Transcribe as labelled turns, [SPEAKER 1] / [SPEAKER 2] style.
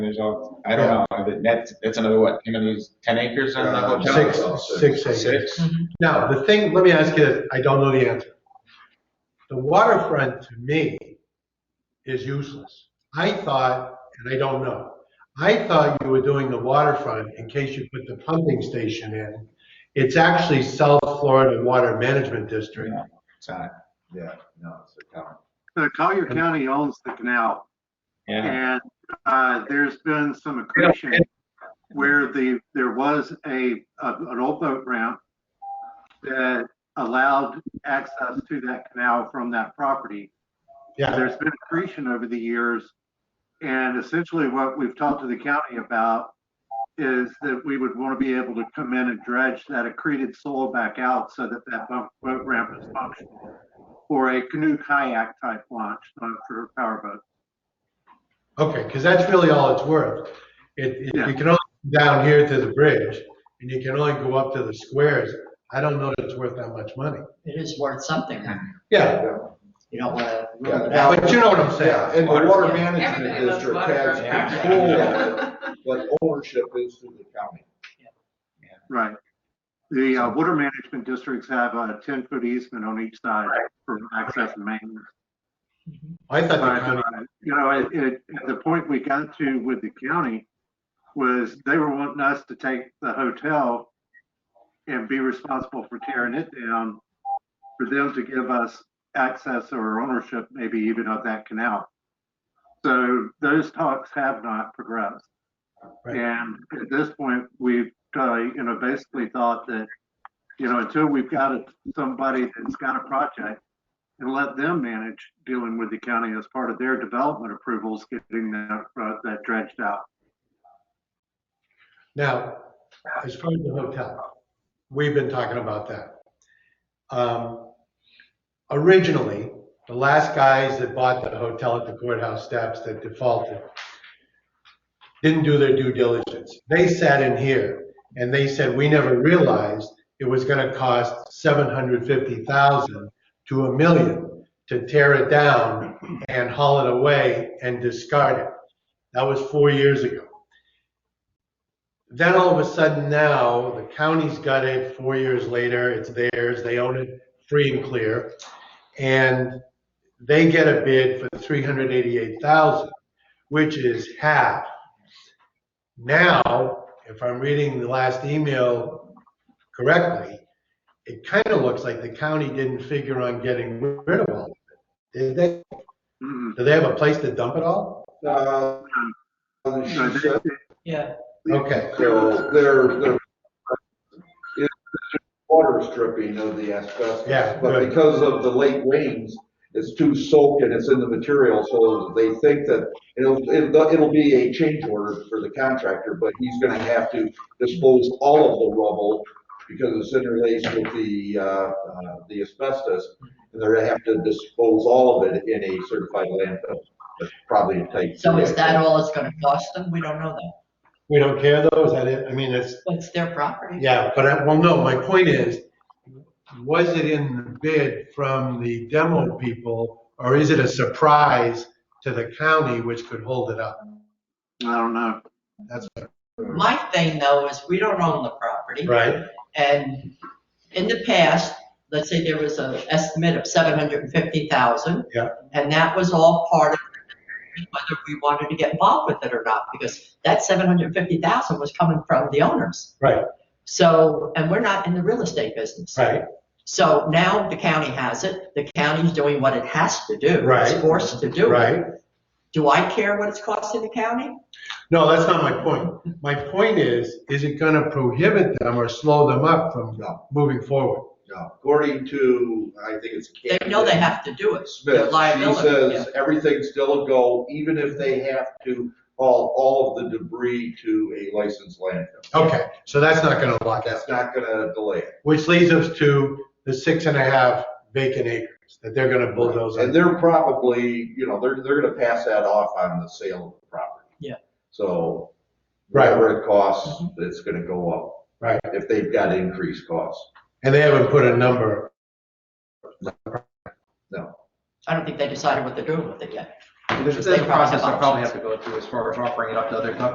[SPEAKER 1] there's all, I don't know, that- that's, that's another what, how many, is- ten acres on the
[SPEAKER 2] Uh,
[SPEAKER 1] hotel? Oh,
[SPEAKER 2] six.
[SPEAKER 3] Six, six acres.
[SPEAKER 1] Six?
[SPEAKER 3] Now, the thing, let me ask you this, I don't know the answer. The waterfront to me is useless. I thought, and I don't know, I thought you were doing the waterfront in case you put the pumping station in. It's actually South Florida Water Management District.
[SPEAKER 1] No, It's not,
[SPEAKER 2] Yeah, no, it's a town.
[SPEAKER 4] Uh, Collier County owns the canal,
[SPEAKER 1] yeah.
[SPEAKER 4] and uh, there's been some accretion where the, there was a, a- an old boat ramp that allowed access to that canal from that property.
[SPEAKER 3] Yeah,
[SPEAKER 4] There's been accretion over the years, and essentially what we've talked to the county about is that we would want to be able to come in and dredge that accreted soil back out so that that boat boat ramp is functional for a canoe kayak type launch, not for a powerboat.
[SPEAKER 3] okay, because that's really all it's worth. It, it- you can only go down here to the bridge, and you can only go up to the squares. I don't know that it's worth that much money.
[SPEAKER 5] It is worth something.
[SPEAKER 3] Yeah,
[SPEAKER 5] You don't want to
[SPEAKER 2] Yeah.
[SPEAKER 5] rule it out.
[SPEAKER 3] but you know what I'm saying.
[SPEAKER 2] Yeah, and the water
[SPEAKER 6] Yeah,
[SPEAKER 2] management
[SPEAKER 6] everybody loves
[SPEAKER 2] district
[SPEAKER 6] water
[SPEAKER 2] has
[SPEAKER 6] projects.
[SPEAKER 2] control, but ownership is through the county.
[SPEAKER 4] Right. The uh, water management districts have a 10-foot easement on each side for access and maintenance.
[SPEAKER 3] I thought the
[SPEAKER 4] But,
[SPEAKER 3] county
[SPEAKER 4] uh, You know, it- it- the point we got to with the county was they were wanting us to take the hotel and be responsible for tearing it down, for them to give us access or ownership, maybe even of that canal. So those talks have not progressed.
[SPEAKER 3] Right.
[SPEAKER 4] And at this point, we've, uh, you know, basically thought that, you know, until we've got a- somebody that's got a project and let them manage dealing with the county as part of their development approvals, getting that, uh, that dredged out.
[SPEAKER 3] Now, as far as the hotel, we've been talking about that. Um, Originally, the last guys that bought the hotel at the courthouse steps that defaulted didn't do their due diligence. They sat in here and they said, we never realized it was gonna cost seven hundred fifty thousand to a million to tear it down and haul it away and discard it. That was four years ago. Then all of a sudden now, the county's got it, four years later, it's theirs, they own it free and clear. And they get a bid for three hundred eighty-eight thousand, which is half. Now, if I'm reading the last email correctly, it kind of looks like the county didn't figure on getting rid of all of it. Did they,
[SPEAKER 4] Mm-mm.
[SPEAKER 3] do they have a place to dump it all?
[SPEAKER 2] Uh, and
[SPEAKER 4] So
[SPEAKER 2] she
[SPEAKER 4] they-
[SPEAKER 2] said,
[SPEAKER 5] Yeah,
[SPEAKER 3] Okay,
[SPEAKER 2] So they're, they're, it's water stripping of the asbestos.
[SPEAKER 3] Yeah,
[SPEAKER 2] But
[SPEAKER 3] good.
[SPEAKER 2] because of the late rains, it's too soaked and it's in the material, so they think that it'll, it'll, it'll be a change order for the contractor, but he's gonna have to dispose all of the rubble because it's interlaced with the, uh, uh, the asbestos, and they're gonna have to dispose all of it in a certified landfill, That's probably a type.
[SPEAKER 5] so
[SPEAKER 2] two
[SPEAKER 5] is that
[SPEAKER 2] landfill.
[SPEAKER 5] all it's going to cost them? We don't know that.
[SPEAKER 3] we don't care though, is that it? I mean, it's,
[SPEAKER 5] It's their property.
[SPEAKER 3] Yeah, but I, well, no, my point is, was it in the bid from the demo people, or is it a surprise to the county which could hold it up?
[SPEAKER 4] I don't know.
[SPEAKER 3] That's
[SPEAKER 5] My thing though is we don't own the property.
[SPEAKER 3] right.
[SPEAKER 5] And in the past, let's say there was an estimate of 750,000.
[SPEAKER 3] Yeah.
[SPEAKER 5] And that was all part of whether we wanted to get involved with it or not, because that 750,000 was coming from the owners.
[SPEAKER 3] Right.
[SPEAKER 5] So, and we're not in the real estate business.
[SPEAKER 3] Right,
[SPEAKER 5] So now the county has it, the county's doing what it has to do.
[SPEAKER 3] Right.
[SPEAKER 5] It's forced to do it.
[SPEAKER 3] right.
[SPEAKER 5] Do I care what it's costing the county?
[SPEAKER 3] No, that's not my point. My point is, is it gonna prohibit them or slow them up from
[SPEAKER 2] No.
[SPEAKER 3] moving forward?
[SPEAKER 2] No, according to, I think it's.
[SPEAKER 5] They know they have to do it.
[SPEAKER 2] Smith,
[SPEAKER 5] Their
[SPEAKER 2] she
[SPEAKER 5] liability,
[SPEAKER 2] says everything's still a go, even if they have to haul all of the debris to a licensed landfill.
[SPEAKER 3] Okay, so that's not gonna lock us,
[SPEAKER 2] That's not gonna delay it.
[SPEAKER 3] which leads us to the six and a half vacant acres that they're gonna bulldoze.
[SPEAKER 2] And they're probably, you know, they're, they're gonna pass that off on the sale of the property.
[SPEAKER 5] Yeah.
[SPEAKER 2] So
[SPEAKER 3] Right. Mm-hmm.
[SPEAKER 2] whatever it costs, it's gonna go up.
[SPEAKER 3] Right.
[SPEAKER 2] If they've got increased costs.
[SPEAKER 3] And they haven't put a number
[SPEAKER 5] I don't think they decided what they're doing with it yet.
[SPEAKER 6] There's a
[SPEAKER 5] They probably
[SPEAKER 6] thing
[SPEAKER 5] have
[SPEAKER 6] process I probably
[SPEAKER 5] options.
[SPEAKER 6] have to go through as far as offering it up to other companies.